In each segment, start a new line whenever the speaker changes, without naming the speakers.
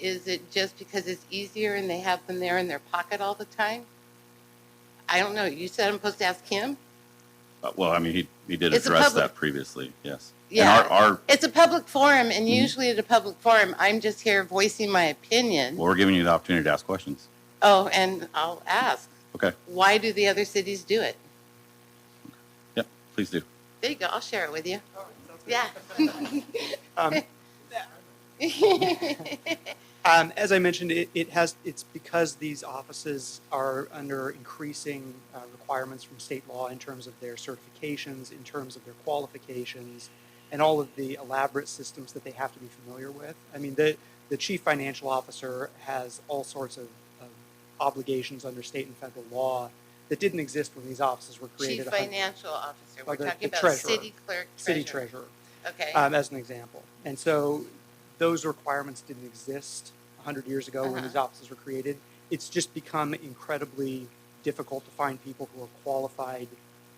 Is it just because it's easier and they have them there in their pocket all the time? I don't know. You said I'm supposed to ask him?
Uh, Well, I mean, he, he did
It's a
address
public-
that previously, yes. And
Yeah.
our, our,
It's a public forum, and
Mhm.
usually at a public forum, I'm just here voicing my opinion.
well, we're giving you the opportunity to ask questions.
Oh, and I'll ask,
Okay,
why do the other cities do it?
yeah, please do.
There you go. I'll share it with you. Yeah.
Um, um, as I mentioned, it, it has it's because these offices are under increasing uh, requirements from state law in terms of their certifications, in terms of their qualifications, and all of the elaborate systems that they have to be familiar with. I mean, the the chief financial officer has all sorts of, of obligations under state and federal law that didn't exist when these offices were created.
Chief
100
financial officer. We're
Oh, the-
talking
the
about
treasurer.
city clerk,
city
treasurer.
treasurer.
Okay.
um, as an example. And so those requirements didn't exist 100 years ago when
Uh-huh.
these offices were created. It's just become incredibly difficult to find people who are qualified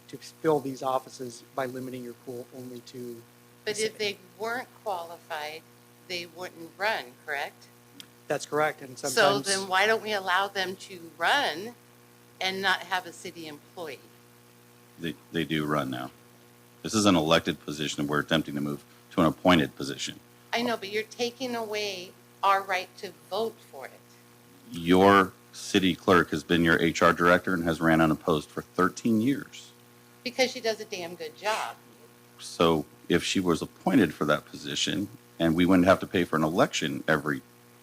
to fill these offices by limiting your pool only to.
But if they weren't qualified, they wouldn't run, correct?
That's correct. And
So
sometimes
then why don't we allow them to run and not have a city employee?
They, they do run now. This is an elected position, and we're attempting to move to an appointed position.
I know, but you're taking away our right to vote for it.
Your city clerk has been your HR director and has ran unopposed for 13 years.
Because she does a damn good job.
So if she was appointed for that position, and we wouldn't have to pay for an election every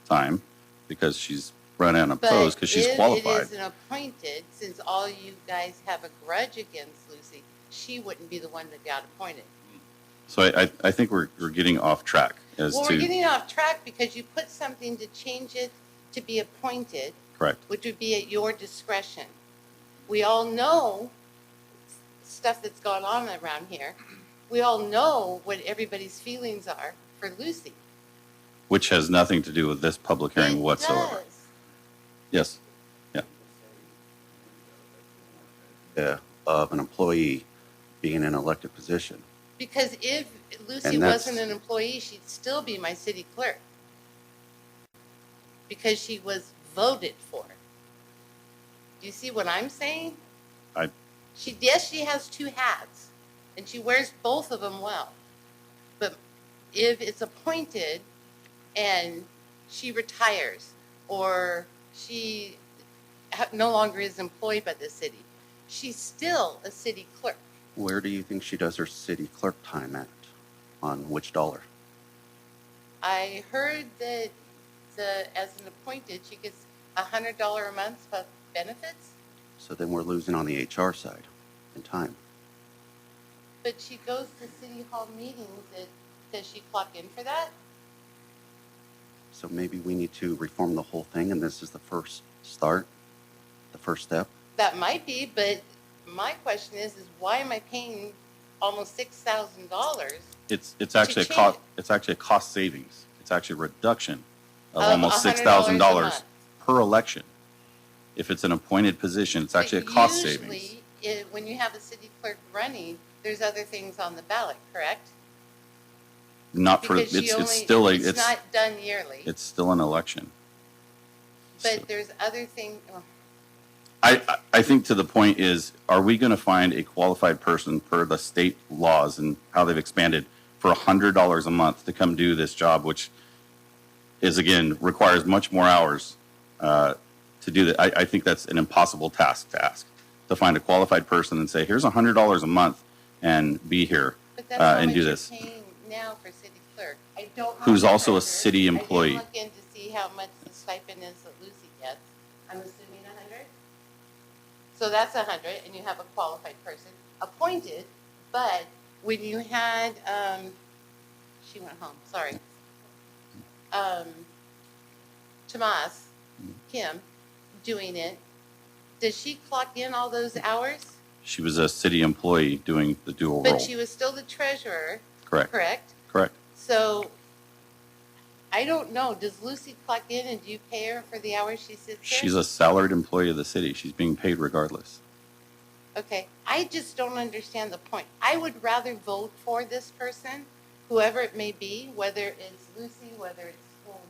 time because she's run unopposed because she's
But if
qualified.
it is an appointed, since all you guys have a grudge against Lucy, she wouldn't be the one that got appointed.
So I, I, I think we're, we're getting off track as
Well, we're
to
getting off track because you put something to change it to be appointed,
correct.
which would be at your discretion. We all know s- stuff that's going on around here. We all know what everybody's feelings are for Lucy.
which has nothing to do with this public hearing
It
whatsoever.
does.
Yes,
uh, of an employee being in an elected position.
Because if Lucy
And that's-
wasn't an employee, she'd still be my city clerk. Because she was voted for. Do you see what I'm saying?
I-
She, yes, she has two hats, and she wears both of them well. But if it's appointed and she retires, or she ha- no longer is employed by the city, she's still a city clerk.
Where do you think she does her city clerk time at? On which dollar?
I heard that the, as an appointed, she gets a hundred dollar a month for benefits,
So then we're losing on the HR side in time.
but she goes to city hall meetings. That, does she clock in for that?
So maybe we need to reform the whole thing, and this is the first start, the first step.
That might be, but my question is, is why am I paying almost six thousand dollars
it's, it's actually a
change
cost,
it.
it's actually a cost savings. It's actually a reduction of
Of
Oh,
$100
almost six thousand
a
dollars
month.
per election. If it's an appointed position, it's actually a cost savings.
Usually, it, when you have a city clerk running, there's other things on the ballot, correct?
Not for,
Because
it's,
she
it's
only-
still a,
It's
it's,
not done yearly,
it's still an election. So-
but there's other things.
I, I- I think to the point is, are we going to find a qualified person per the state laws and how they've expanded for hundred dollars a month to come do this job, which is again, requires much more hours uh, to do that. I, I think that's an impossible task to ask, to find a qualified person and say, here's a hundred dollars a month and be here.
But
uh,
that's how
and
much
do
you're
this.
paying now for city clerk. I don't. know
Who's
the
also a
record.
city employee.
I did look in to see how much the stipend is that Lucy gets. I'm assuming a hundred. So that's a hundred, and you have a qualified person appointed, but when you had, um, she went home, sorry. Um, Tomas, Kim, doing it, does she clock in all those hours?
She was a city employee doing the dual
But
role.
she was still the treasurer,
Correct,
correct?
correct.
So I don't know. Does Lucy clock in and do you pay her for the hours she sits there?
She's a salaried employee of the city. She's being paid regardless.
okay. I just don't understand the point. I would rather vote for this person, whoever it may be, whether it's Lucy, whether it's